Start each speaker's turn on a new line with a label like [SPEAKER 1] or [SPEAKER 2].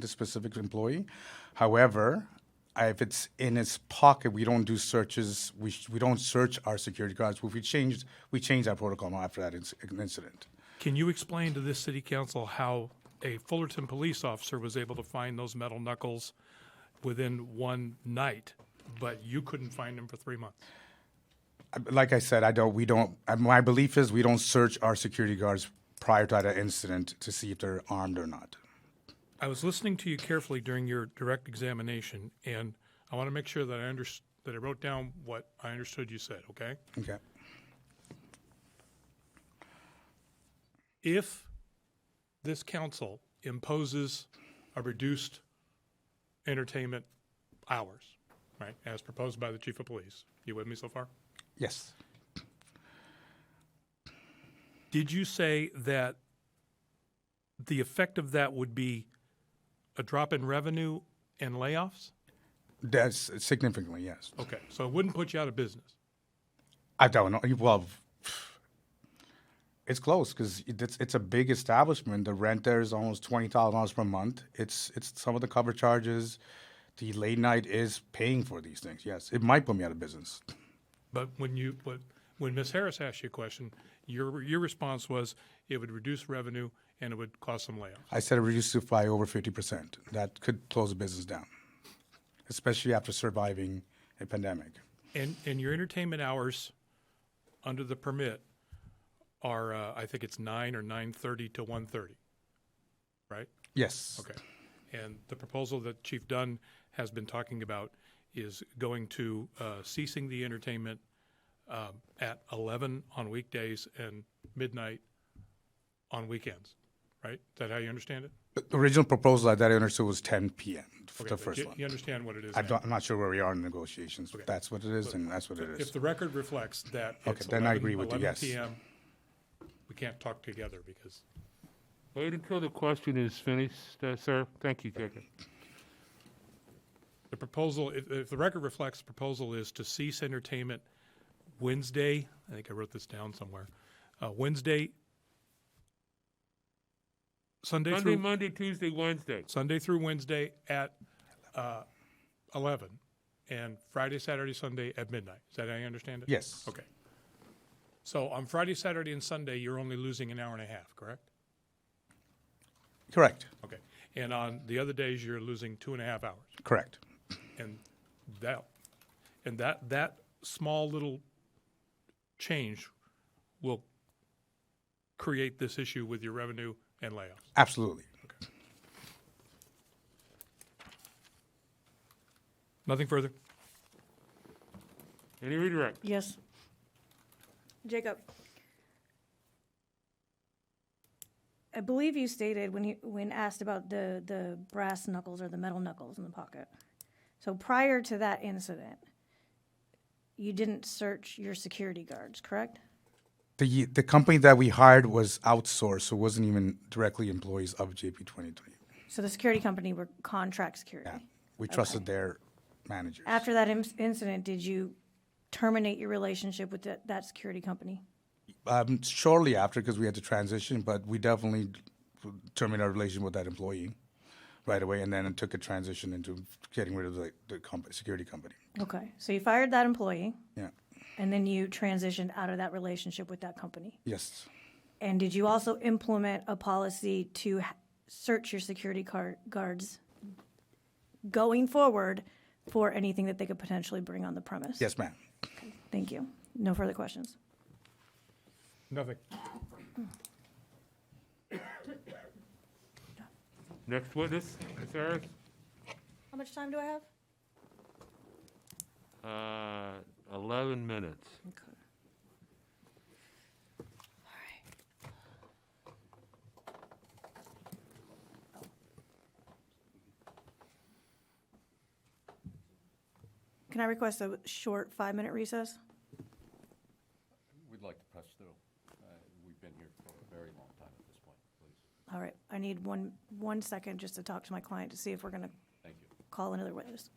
[SPEAKER 1] the specific employee. However, I- if it's in his pocket, we don't do searches. We, sh- we don't search our security guards. We changed we changed our protocol now after that inc- incident.
[SPEAKER 2] Can you explain to this city council how a Fullerton police officer was able to find those metal knuckles within one night, but you couldn't find them for three months?
[SPEAKER 1] I- Like I said, I don't. We don't. I- My belief is we don't search our security guards prior to that incident to see if they're armed or not.
[SPEAKER 2] I was listening to you carefully during your direct examination, and I want to make sure that I under, that I wrote down what I understood you said, okay?
[SPEAKER 1] Okay.
[SPEAKER 2] If this council imposes a reduced entertainment hours, right, as proposed by the chief of police, you with me so far?
[SPEAKER 1] Yes.
[SPEAKER 2] Did you say that the effect of that would be a drop in revenue and layoffs?
[SPEAKER 1] That's significantly yes.
[SPEAKER 2] Okay, so it wouldn't put you out of business.
[SPEAKER 1] I don't know. Well, it's close because it's it's a big establishment. The rent there is almost twenty thousand dollars per month. It's it's some of the cover charges. The late night is paying for these things. Yes, it might put me out of business.
[SPEAKER 2] But when you, but when Ms. Harris asked you a question, your, your response was it would reduce revenue and it would cause some layoffs.
[SPEAKER 1] I said it reduced it by over fifty percent. That could close the business down, especially after surviving a pandemic.
[SPEAKER 2] And, and your entertainment hours under the permit are, uh, I think it's nine or nine-thirty to one-thirty, right?
[SPEAKER 1] Yes.
[SPEAKER 2] Okay. And the proposal that Chief Dunn has been talking about is going to uh, ceasing the entertainment um, at 11 on weekdays and midnight on weekends, right? Is that how you understand it?
[SPEAKER 1] The original proposal that I understood was ten p.m. for the
[SPEAKER 2] Okay,
[SPEAKER 1] first
[SPEAKER 2] you-
[SPEAKER 1] one.
[SPEAKER 2] You understand what it is
[SPEAKER 1] I
[SPEAKER 2] now.
[SPEAKER 1] don't, I'm not sure where we are in negotiations. If that's what it is, and that's what it is.
[SPEAKER 2] If the record reflects that it's
[SPEAKER 1] then I
[SPEAKER 2] 11
[SPEAKER 1] agree with you,
[SPEAKER 2] 11
[SPEAKER 1] yes.
[SPEAKER 2] PM, we can't talk together because
[SPEAKER 3] Wait until the question is finished, uh, sir. Thank you, Jacob.
[SPEAKER 2] The proposal, if, if the record reflects, the proposal is to cease entertainment Wednesday, I think I wrote this down somewhere, uh, Wednesday, Sunday
[SPEAKER 3] Sunday,
[SPEAKER 2] through,
[SPEAKER 3] Monday, Tuesday, Wednesday.
[SPEAKER 2] Sunday through Wednesday at, uh, eleven, and Friday, Saturday, Sunday at midnight. Is that how you understand it?
[SPEAKER 1] Yes.
[SPEAKER 2] Okay. So on Friday, Saturday, and Sunday, you're only losing an hour and a half, correct?
[SPEAKER 1] Correct.
[SPEAKER 2] Okay. And on the other days, you're losing two and a half hours.
[SPEAKER 1] Correct.
[SPEAKER 2] and that and that that small little change will create this issue with your revenue and layoffs.
[SPEAKER 1] Absolutely.
[SPEAKER 2] Nothing further.
[SPEAKER 3] Any redirect?
[SPEAKER 4] Yes.
[SPEAKER 5] Jacob, I believe you stated when you, when asked about the, the brass knuckles or the metal knuckles in the pocket. So prior to that incident, you didn't search your security guards, correct?
[SPEAKER 1] The the company that we hired was outsourced, so it wasn't even directly employees of JP twenty three.
[SPEAKER 5] So the security company were contract security.
[SPEAKER 1] Yeah. We trusted their managers.
[SPEAKER 5] After that ins- incident, did you terminate your relationship with that, that security company?
[SPEAKER 1] Um, shortly after, because we had to transition, but we definitely terminated our relation with that employee right away, and then it took a transition into getting rid of the the company, security company.
[SPEAKER 5] Okay, so you fired that employee
[SPEAKER 1] Yeah.
[SPEAKER 5] and then you transitioned out of that relationship with that company?
[SPEAKER 1] Yes.
[SPEAKER 5] And did you also implement a policy to h- search your security car- guards going forward for anything that they could potentially bring on the premise?
[SPEAKER 1] Yes, ma'am.
[SPEAKER 5] Thank you. No further questions.
[SPEAKER 2] Nothing.
[SPEAKER 3] Next witness, Ms. Harris.
[SPEAKER 5] How much time do I have?
[SPEAKER 3] Uh, 11 minutes.
[SPEAKER 5] Can I request a short five-minute recess?
[SPEAKER 6] We'd like to press through. Uh, We've been here for a very long time at this point, please.
[SPEAKER 5] All right, I need one, one second just to talk to my client to see if we're going to
[SPEAKER 6] Thank you.
[SPEAKER 5] call another witness.